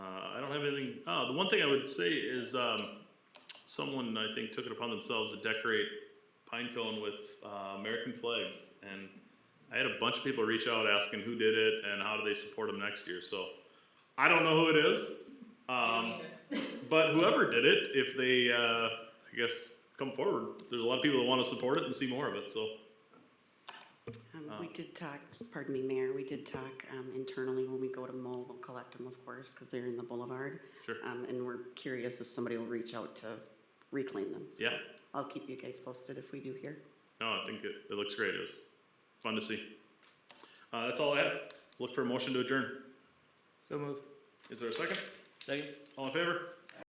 anything, uh, the one thing I would say is, um, someone, I think, took it upon themselves to decorate pine cone with, uh, American flags. And I had a bunch of people reach out asking who did it and how do they support them next year, so I don't know who it is. Um, but whoever did it, if they, uh, I guess, come forward, there's a lot of people that wanna support it and see more of it, so. Um, Oh. we did talk, pardon me, Mayor, we did talk, um, internally when we go to Mo, we'll collect them, of course, because they're in the boulevard. Sure. Um, and we're curious if somebody will reach out to reclaim them. So Yeah. I'll keep you guys posted if we do here. No, I think it, it looks great. It was fun to see. Uh, that's all I have. Look for a motion to adjourn. So moved. Is there a second? Second? All in favor?